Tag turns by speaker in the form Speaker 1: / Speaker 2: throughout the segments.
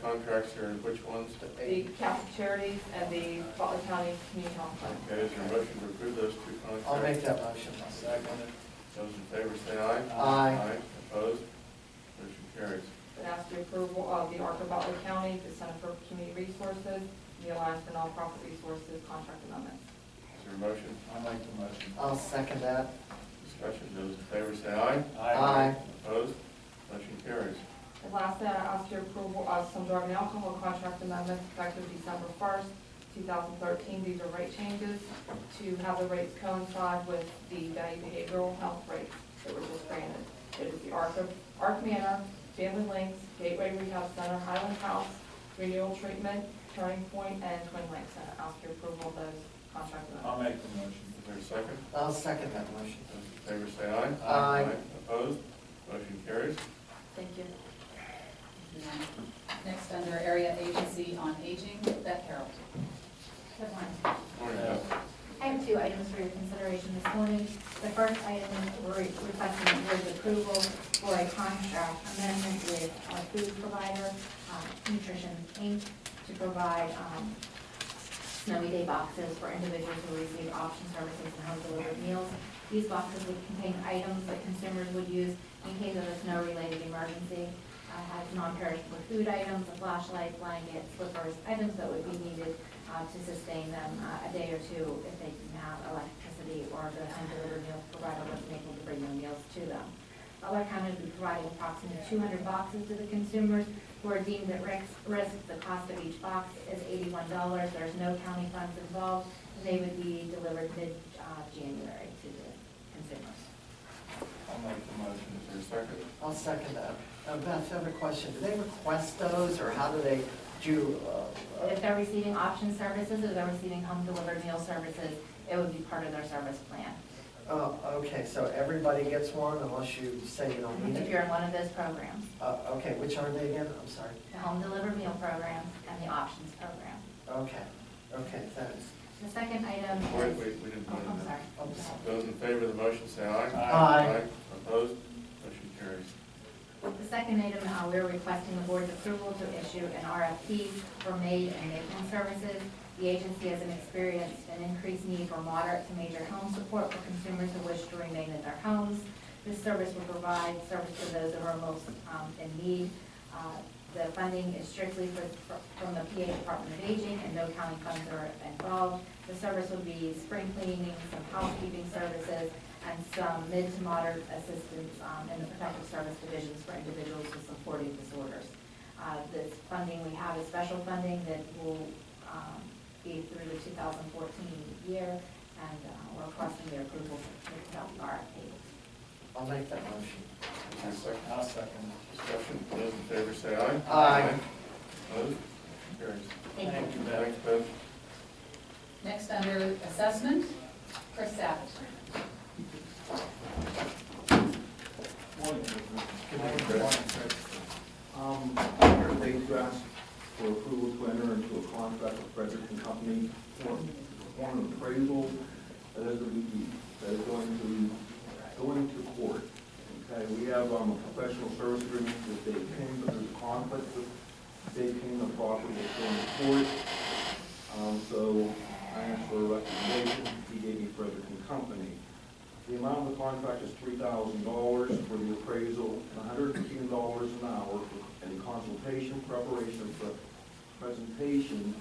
Speaker 1: contracts are which ones to
Speaker 2: the
Speaker 1: eight?
Speaker 2: Catholic Charities and the Butler County Community Health Fund.
Speaker 1: Okay, is there a motion to approve those two contracts?
Speaker 3: I'll make that motion. I'll second it.
Speaker 1: Those in favor say aye.
Speaker 3: Aye.
Speaker 1: opposed? Motion carries.
Speaker 2: But ask the approval of the ARCA Butler County, the Center for Community Resources, the Alliance for Nonprofit Resources Contract Amendment.
Speaker 1: Is there a motion?
Speaker 4: I'll make the motion.
Speaker 3: I'll second that.
Speaker 1: Discussion, those in favor say aye.
Speaker 3: Aye.
Speaker 1: Opposed? Motion carries.
Speaker 2: And lastly, I ask your approval of some drug and alcohol contract amendments effective December first, two thousand thirteen. These are rate changes to have the rates coincide with the value behavioral health rates that were just granted. It is the Arc, of- Arc Manor, Family Links, Gateway Rehab Center, Highland House, Renewal Treatment, Turning Point, and Twin Lakes. And I ask your approval of those contract amendments.
Speaker 4: I'll make the motion.
Speaker 1: Is there a second?
Speaker 3: I'll second that motion.
Speaker 1: Those in favor say aye.
Speaker 3: Aye.
Speaker 1: Opposed? Motion carries.
Speaker 2: Thank you.
Speaker 5: Next, under Area Agency on Aging, Beth Harold.
Speaker 6: Good morning.
Speaker 1: Morning, Beth.
Speaker 6: I have two items for your consideration this morning. The first item, we're requesting the board's approval for a contract amendment with our food provider, um, Nutrition Inc., to provide um, snowy day boxes for individuals who receive option services and home delivered meals. These boxes would contain items that consumers would use in case of a snow-related emergency. Uh, Has non-perishable food items, a flashlight, blanket, slippers, items that would be needed uh, to sustain them uh, a day or two if they didn't have electricity or the home delivered meal provider wasn't able to bring the meals to them. Butler County will be providing approximately two hundred boxes to the consumers who are deemed at risk, risk. The cost of each box is eighty-one dollars. There's no county funds involved. They would be delivered mid-January to the consumers.
Speaker 4: I'll make the motion.
Speaker 1: Is there a second?
Speaker 3: I'll second that. Uh, Beth, I have a question. Do they request those, or how do they do? uh, uh,
Speaker 6: If they're receiving option services or they're receiving home-delivered meal services, it would be part of their service plan.
Speaker 3: Oh, okay, so everybody gets one unless you say you don't need
Speaker 6: If
Speaker 3: it?
Speaker 6: you're in one of those programs,
Speaker 3: Uh, Okay, which are they again? I'm sorry.
Speaker 6: the home-delivered meal program and the options program.
Speaker 3: Okay, okay, thanks.
Speaker 6: The second item is.
Speaker 1: Wait, wait, we didn't
Speaker 6: Oh,
Speaker 1: vote on
Speaker 6: I'm
Speaker 1: that.
Speaker 6: sorry.
Speaker 3: I'm sorry.
Speaker 1: Those in favor of the motion say aye.
Speaker 3: Aye.
Speaker 1: Opposed? Motion carries.
Speaker 6: The second item, uh, we're requesting the board's approval to issue an RFP for maid and matron services. The agency has an experienced an increased need for moderate to major home support for consumers who wish to remain in their homes. This service will provide service to those who are most um, in need. Uh, The funding is strictly for- from the PA Department of Aging, and no county funds are involved. The service will be spring cleaning, some housekeeping services, and some mid to moderate assistance um, in the protective service divisions for individuals with supporting disorders. Uh, This funding, we have is special funding that will um, be through the 2014 year, and uh, we're requesting their approval for the RFP.
Speaker 3: I'll make that motion.
Speaker 1: Is there a second?
Speaker 4: I'll second.
Speaker 1: Discussion, those in favor say aye.
Speaker 3: Aye.
Speaker 1: Opposed? Motion Carries.
Speaker 6: Thank you.
Speaker 4: you, Beth.
Speaker 1: Thanks, Beth.
Speaker 5: Next, under Assessment, Chris Savage.
Speaker 4: Morning,
Speaker 1: Good morning, Chris.
Speaker 7: Um, Mayor Dave asked for approval to enter into a contract with Frederick and Company for for an appraisal that is going to be, that is going to, going to court. Okay, we have, um, a professional service agreement with Dave King, but there's a conflict with Dave King, the property that's going to court. Um, so I asked for a recommendation, he gave me Frederick and Company. The amount of the contract is three thousand dollars for the appraisal, and hundred and ten dollars an hour for any consultation, preparation, pre- presentation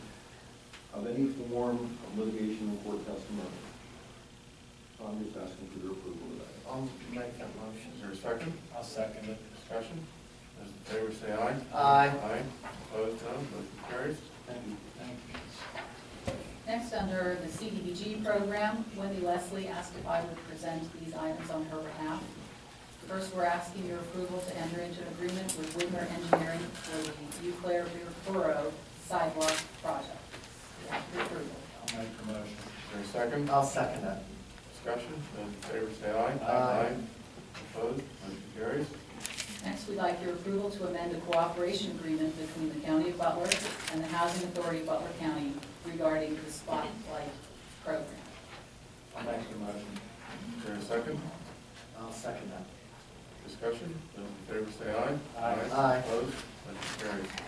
Speaker 7: of any form of litigation or court testimony. So I'm just asking for your approval of that.
Speaker 3: I'll make that motion.
Speaker 1: Is there a second?
Speaker 4: I'll second it.
Speaker 1: Discussion, those in favor say aye.
Speaker 3: Aye.
Speaker 1: Aye. Opposed, none, motion carries.
Speaker 4: Thank you. Thank you.
Speaker 5: Next, under the CDBG program, Wendy Leslie asked if I would present these items on her behalf. First, we're asking your approval to enter into an agreement with Whitmer Engineering for the Euclid River Borough Sidewalk Project. Your approval.
Speaker 4: I'll make the motion.
Speaker 1: Is there a second?
Speaker 3: I'll second that.
Speaker 1: Discussion, those in favor say aye.
Speaker 3: Aye.
Speaker 1: Opposed, motion carries.
Speaker 5: Next, we'd like your approval to amend a cooperation agreement between the County of Butler and the Housing Authority of Butler County regarding the Spotlight Program.
Speaker 4: I'll make the motion.
Speaker 1: Is there a second?
Speaker 3: I'll second that.
Speaker 1: Discussion, those in favor say aye.
Speaker 4: Aye.
Speaker 3: Aye.
Speaker 1: Opposed, motion carries.